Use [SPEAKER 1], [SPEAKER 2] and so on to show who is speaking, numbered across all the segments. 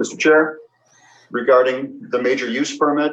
[SPEAKER 1] Mr. Chair, regarding the major use permit,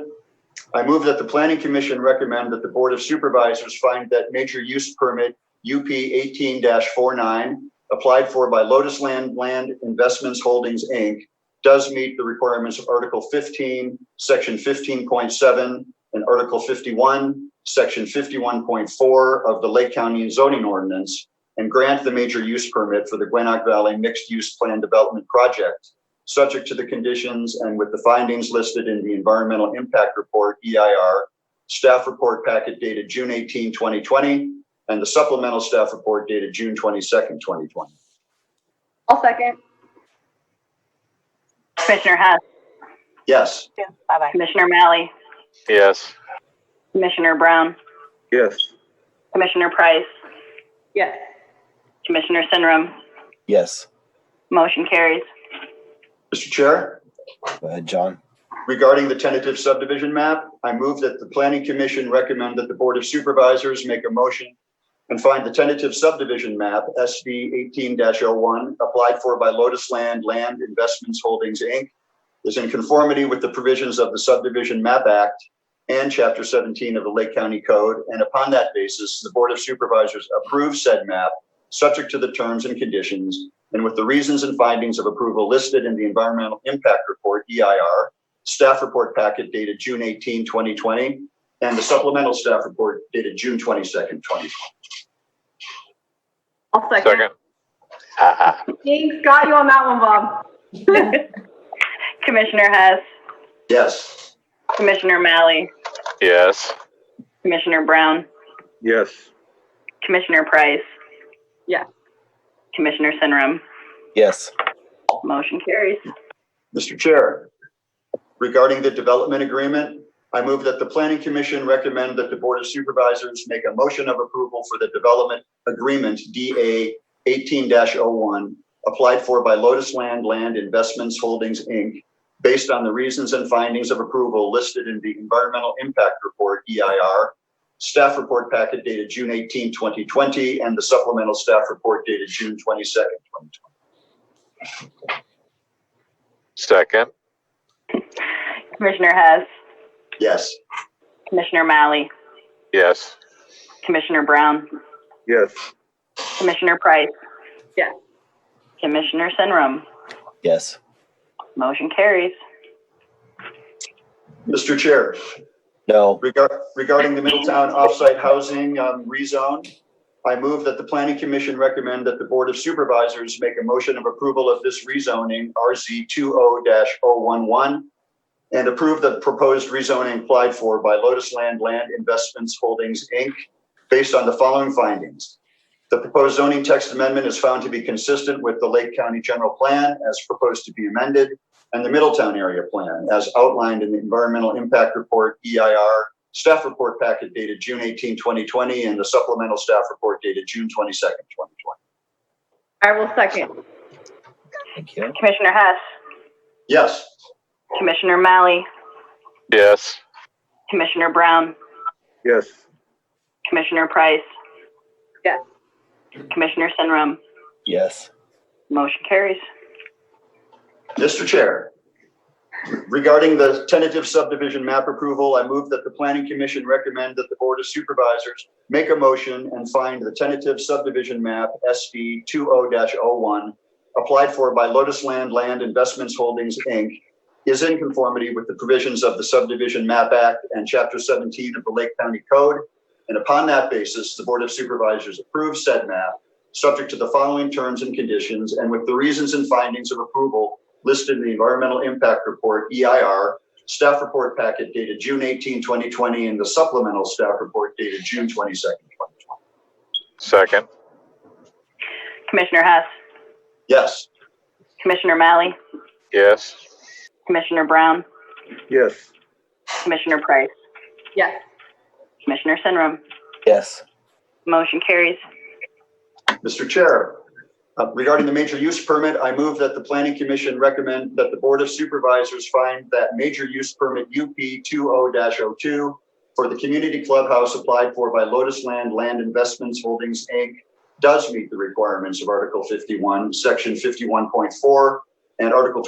[SPEAKER 1] I move that the planning commission recommend that the board of supervisors find that major use permit UP eighteen 49 applied for by Lotus Land Land Investments Holdings, Inc., does meet the requirements of Article fifteen, Section fifteen point seven, and Article fifty-one, Section fifty-one point four of the Lake County zoning ordinance, and grant the major use permit for the Gwinoc Valley Mixed Use Plan Development Project, subject to the conditions and with the findings listed in the Environmental Impact Report, EIR, staff report packet dated June 18, 2020, and the supplemental staff report dated June 22nd, 2020.
[SPEAKER 2] I'll second.
[SPEAKER 3] Commissioner Hess,
[SPEAKER 1] Yes,
[SPEAKER 4] Bye-bye.
[SPEAKER 3] Commissioner Malley,
[SPEAKER 5] Yes.
[SPEAKER 3] Commissioner Brown,
[SPEAKER 5] Yes.
[SPEAKER 3] Commissioner Price,
[SPEAKER 2] Yes.
[SPEAKER 3] Commissioner Sinrum,
[SPEAKER 6] Yes,
[SPEAKER 3] motion carries.
[SPEAKER 1] Mr. Chair?
[SPEAKER 6] go ahead, John.
[SPEAKER 1] Regarding the tentative subdivision map, I move that the planning commission recommend that the board of supervisors make a motion and find the tentative subdivision map, SD eighteen oh one applied for by Lotus Land Land Investments Holdings, Inc., is in conformity with the provisions of the Subdivision Map Act and Chapter seventeen of the Lake County Code, and upon that basis, the board of supervisors approves said map, subject to the terms and conditions, and with the reasons and findings of approval listed in the Environmental Impact Report, E EIR, staff report packet dated June 18, 2020, and the supplemental staff report dated June 22nd, 2020.
[SPEAKER 2] I'll second.
[SPEAKER 5] Second. Ah,
[SPEAKER 2] Thanks, got you on that one, Bob.
[SPEAKER 3] Commissioner Hess,
[SPEAKER 1] Yes,
[SPEAKER 3] Commissioner Malley,
[SPEAKER 5] yes.
[SPEAKER 3] Commissioner Brown,
[SPEAKER 5] Yes.
[SPEAKER 3] Commissioner Price.
[SPEAKER 2] Yes.
[SPEAKER 3] Commissioner Sinrum,
[SPEAKER 6] Yes,
[SPEAKER 3] motion carries.
[SPEAKER 1] Mr. Chair. Regarding the development agreement, I move that the planning commission recommend that the board of supervisors make a motion of approval for the development agreement DA 18-01 applied for by Lotus Land Land Investments Holdings, Inc., based on the reasons and findings of approval listed in the Environmental Impact Report, EIR, staff report packet dated June 18, 2020, and the supplemental staff report dated June 22nd, 2020.
[SPEAKER 5] Second.
[SPEAKER 3] Commissioner Hess,
[SPEAKER 1] Yes.
[SPEAKER 3] Commissioner Malley,
[SPEAKER 5] Yes.
[SPEAKER 3] Commissioner Brown,
[SPEAKER 5] Yes.
[SPEAKER 3] Commissioner Price.
[SPEAKER 2] Yes.
[SPEAKER 3] Commissioner Sinrum,
[SPEAKER 6] yes,
[SPEAKER 3] motion carries.
[SPEAKER 1] Mr. Chair.
[SPEAKER 6] no,
[SPEAKER 1] Regar- Regarding the Middletown offsite housing um, rezone, I move that the planning commission recommend that the board of supervisors make a motion of approval of this rezoning RZ 20-011 and approve the proposed rezoning applied for by Lotus Land Land Investments Holdings, Inc., based on the following findings. The proposed zoning text amendment is found to be consistent with the Lake County General Plan as proposed to be amended and the Middletown Area Plan as outlined in the Environmental Impact Report, E EIR, staff report packet dated June 18, 2020, and the supplemental staff report dated June 22nd, 2020.
[SPEAKER 2] I will second.
[SPEAKER 6] thank you.
[SPEAKER 3] Commissioner Hess,
[SPEAKER 1] Yes,
[SPEAKER 3] Commissioner Malley,
[SPEAKER 5] Yes.
[SPEAKER 3] Commissioner Brown,
[SPEAKER 5] Yes.
[SPEAKER 3] Commissioner Price.
[SPEAKER 2] Yes.
[SPEAKER 3] Commissioner Sinrum,
[SPEAKER 6] Yes,
[SPEAKER 3] motion carries.
[SPEAKER 1] Mr. Chair. Regarding the tentative subdivision map approval, I move that the Planning Commission recommend that the Board of Supervisors make a motion and find the tentative subdivision map SB 20-01 applied for by Lotus Land Land Investments Holdings, Inc. is in conformity with the provisions of the Subdivision Map Act and Chapter 17 of the Lake County Code. And upon that basis, the Board of Supervisors approves said map, subject to the following terms and conditions and with the reasons and findings of approval listed in the Environmental Impact Report, EIR, staff report packet dated June 18, 2020, and the supplemental staff report dated June 22nd, 2020.
[SPEAKER 5] Second.
[SPEAKER 3] Commissioner Hess,
[SPEAKER 1] Yes,
[SPEAKER 3] Commissioner Malley,
[SPEAKER 5] Yes.
[SPEAKER 3] Commissioner Brown,
[SPEAKER 5] Yes.
[SPEAKER 3] Commissioner Price,
[SPEAKER 2] Yes.
[SPEAKER 3] Commissioner Sinrum,
[SPEAKER 6] yes,
[SPEAKER 3] motion carries.
[SPEAKER 1] Mr. Chair, uh, regarding the major use permit, I move that the Planning Commission recommend that the Board of Supervisors find that major use permit UP 20-02 for the community clubhouse applied for by Lotus Land Land Investments Holdings, Inc. does meet the requirements of Article 51, Section 51.4, and Article